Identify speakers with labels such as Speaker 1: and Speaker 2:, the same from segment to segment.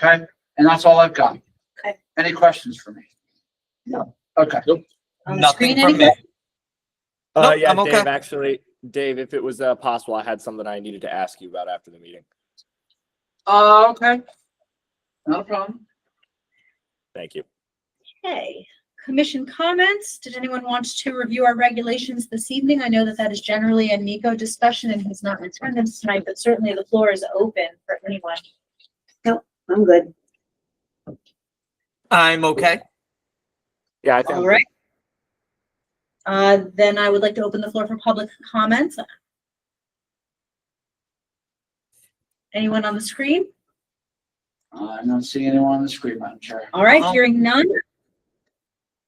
Speaker 1: Okay, and that's all I've got.
Speaker 2: Okay.
Speaker 1: Any questions for me? No. Okay,
Speaker 2: On the
Speaker 3: Nothing
Speaker 2: screen,
Speaker 3: from
Speaker 2: anybody?
Speaker 3: me.
Speaker 4: Uh,
Speaker 3: Nope,
Speaker 4: yeah,
Speaker 3: I'm
Speaker 4: Dave,
Speaker 3: okay.
Speaker 4: actually, Dave, if it was uh, possible, I had something I needed to ask you about after the meeting.
Speaker 1: uh, okay. Not a problem.
Speaker 4: Thank you.
Speaker 2: Okay, commission comments. Did anyone want to review our regulations this evening? I know that that is generally a Nico discussion and he's not in attendance tonight, but certainly the floor is open for anyone.
Speaker 5: I'm good.
Speaker 3: I'm okay.
Speaker 4: Yeah, I
Speaker 2: All
Speaker 4: think
Speaker 2: right. Uh, then I would like to open the floor for public comments. Anyone on the screen?
Speaker 1: I don't see anyone on the screen, Madam Chair.
Speaker 2: All right,
Speaker 6: Um,
Speaker 3: Uh-huh.
Speaker 2: hearing none.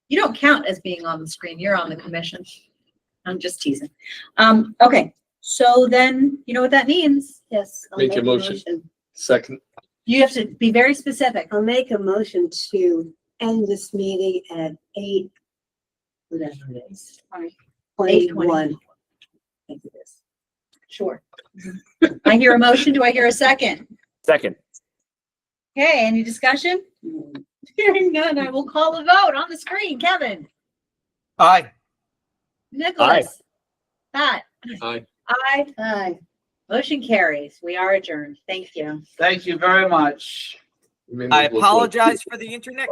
Speaker 2: You don't count as being on the screen. You're on the commission. I'm just teasing. Um, okay, so then you know what that means?
Speaker 5: Yes. I'll
Speaker 6: Make a motion. Second.
Speaker 2: You have to be very specific.
Speaker 5: I'll make a motion to end this meeting at eight, whatever it is.
Speaker 2: Eight twenty.
Speaker 5: Twenty-one. Thank you, yes.
Speaker 2: Sure. I hear a motion. Do I hear a second?
Speaker 4: second.
Speaker 2: Okay, any discussion? Hearing none, I will call a vote on the screen. Kevin,
Speaker 3: Aye.
Speaker 2: Nicholas, Pat,
Speaker 6: Aye.
Speaker 2: I,
Speaker 5: Hi.
Speaker 2: motion carries. We are adjourned. Thank you.
Speaker 1: Thank you very much.
Speaker 6: Maybe
Speaker 3: I
Speaker 6: we'll-
Speaker 3: apologize for the internet